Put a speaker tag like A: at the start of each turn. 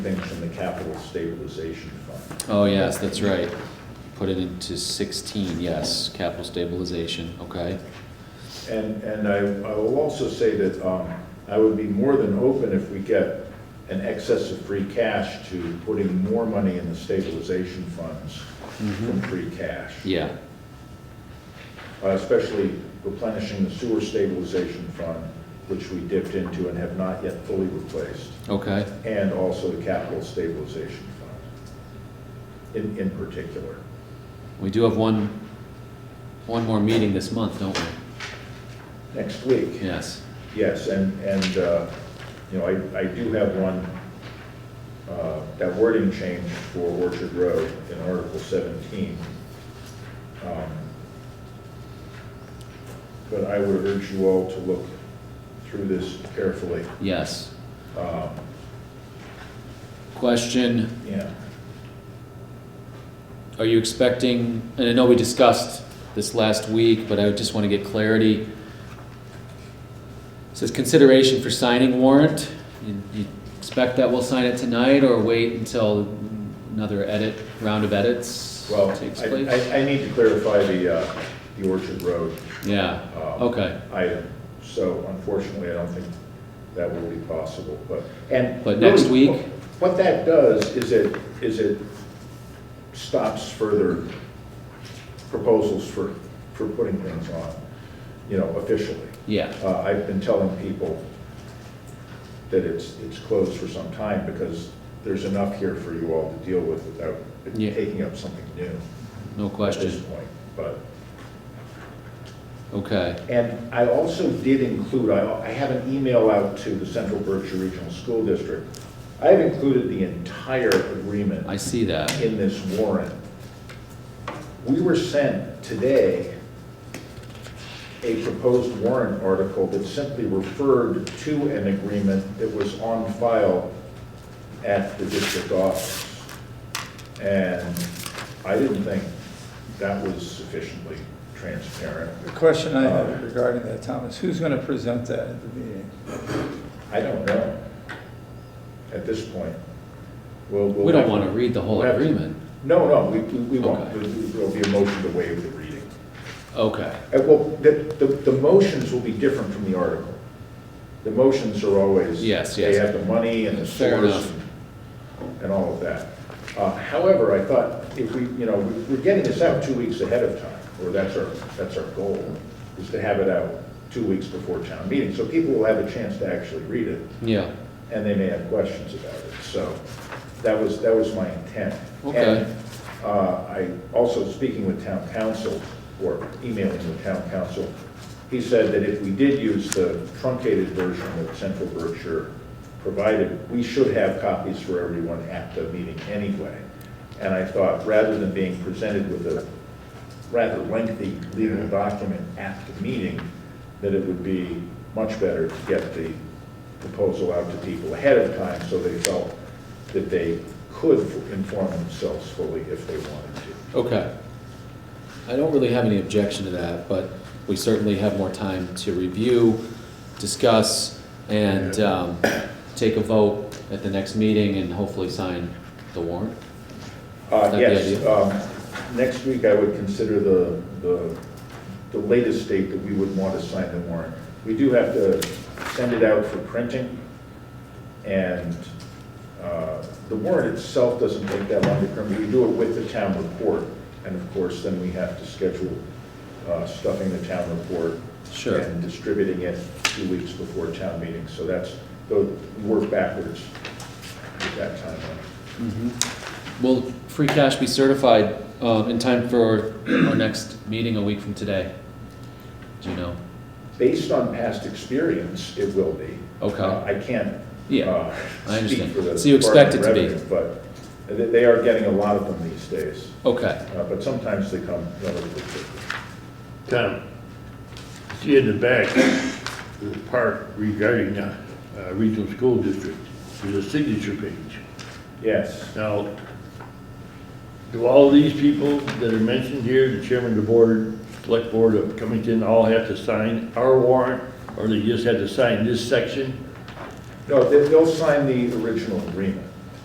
A: things from the capital stabilization fund.
B: Oh, yes, that's right. Put it into sixteen, yes, capital stabilization, okay.
A: And, and I, I will also say that, um, I would be more than open if we get an excess of free cash to putting more money in the stabilization funds from free cash.
B: Yeah,
A: Uh, Especially replenishing the sewer stabilization fund, which we dipped into and have not yet fully replaced,
B: okay,
A: and also the capital stabilization fund in, in particular.
B: we do have one, one more meeting this month, don't we?
A: Next week,
B: Yes,
A: Yes, and, and, uh, you know, I, I do have one, uh, that wording change for Orchard Road in Article 17. Um, But I would urge you all to look through this carefully.
B: yes.
A: Um,
B: Question,
A: Yeah,
B: are you expecting, and I know we discussed this last week, but I just want to get clarity. It Says consideration for signing warrant, you you expect that we'll sign it tonight or wait until another edit, round of edits
A: well,
B: takes
A: I,
B: place?
A: I- I need to clarify the, uh, the Orchard Road
B: Yeah,
A: um,
B: okay.
A: item. So unfortunately, I don't think that will be possible, but, and.
B: But next
A: really,
B: week?
A: What that does is it, is it stops further proposals for, for putting things on, you know, officially.
B: Yeah,
A: Uh, I've been telling people that it's, it's closed for some time because there's enough here for you all to deal with without it
B: Yeah.
A: taking up something new
B: no
A: at this
B: question.
A: point, but.
B: Okay,
A: And I also did include, I, I have an email out to the Central Berkshire Regional School District. I have included the entire agreement
B: I see that.
A: in this warrant. We were sent today a proposed warrant article that simply referred to an agreement that was on file at the district office. And I didn't think that was sufficiently transparent.
C: The question I have regarding that, Thomas, who's going to present that at the meeting?
A: I don't know at this point. We'll- we'll
B: We don't
A: have-
B: want to read the whole
A: we'll have-
B: agreement.
A: No, no, we, we we won't.
B: Okay.
A: There- There'll be a motion to waive the reading.
B: Okay,
A: Uh, Well, the, the, the motions will be different from the article. The motions are always.
B: Yes,
A: They
B: yes.
A: have the money and the
B: Fair
A: source
B: enough.
A: and- and all of that. Uh, However, I thought if we, you know, we- we're getting this out two weeks ahead of time, or that's our, that's our goal, is to have it out two weeks before town meeting. So people will have a chance to actually read it
B: yeah,
A: and they may have questions about it. So that was, that was my intent.
B: Okay.
A: And uh, I, also speaking with town council, or emailing with town council, he said that if we did use the truncated version that Central Berkshire provided, we should have copies for everyone at the meeting anyway. And I thought, rather than being presented with a rather lengthy legal document at the meeting, that it would be much better to get the proposal out to people ahead of time, so they felt that they could inform themselves fully if they wanted to.
B: okay. I don't really have any objection to that, but we certainly have more time to review, discuss, and um, take a vote at the next meeting and hopefully sign the warrant.
A: Uh,
B: That'd be
A: yes,
B: ideal.
A: um, next week I would consider the, the, the latest date that we would want to sign the warrant. We do have to send it out for printing, and, uh, the warrant itself doesn't take that long to print. We do it with the town report, and of course, then we have to schedule, uh, stuffing the town report.
B: Sure.
A: And distributing it two weeks before town meeting, so that's, though, we work backwards at that timeline.
B: Will free cash be certified um, in time for our next meeting a week from today? Do you know?
A: Based on past experience, it will be.
B: Okay.
A: Uh, I can't.
B: Yeah,
A: uh,
B: I
A: speak
B: understand.
A: for the
B: So you expect
A: Department
B: it to be?
A: of Revenue, But they- they are getting a lot of them these days,
B: Okay,
A: Uh, but sometimes they come relatively quickly.
D: Tom, see in the back of the park regarding the uh, regional school district, there's a signature page.
A: Yes,
D: Now, do all these people that are mentioned here, the chairman of the board, select board of Covington, all have to sign our warrant? Or they just have to sign this section?
A: no, they- they'll sign the original agreement.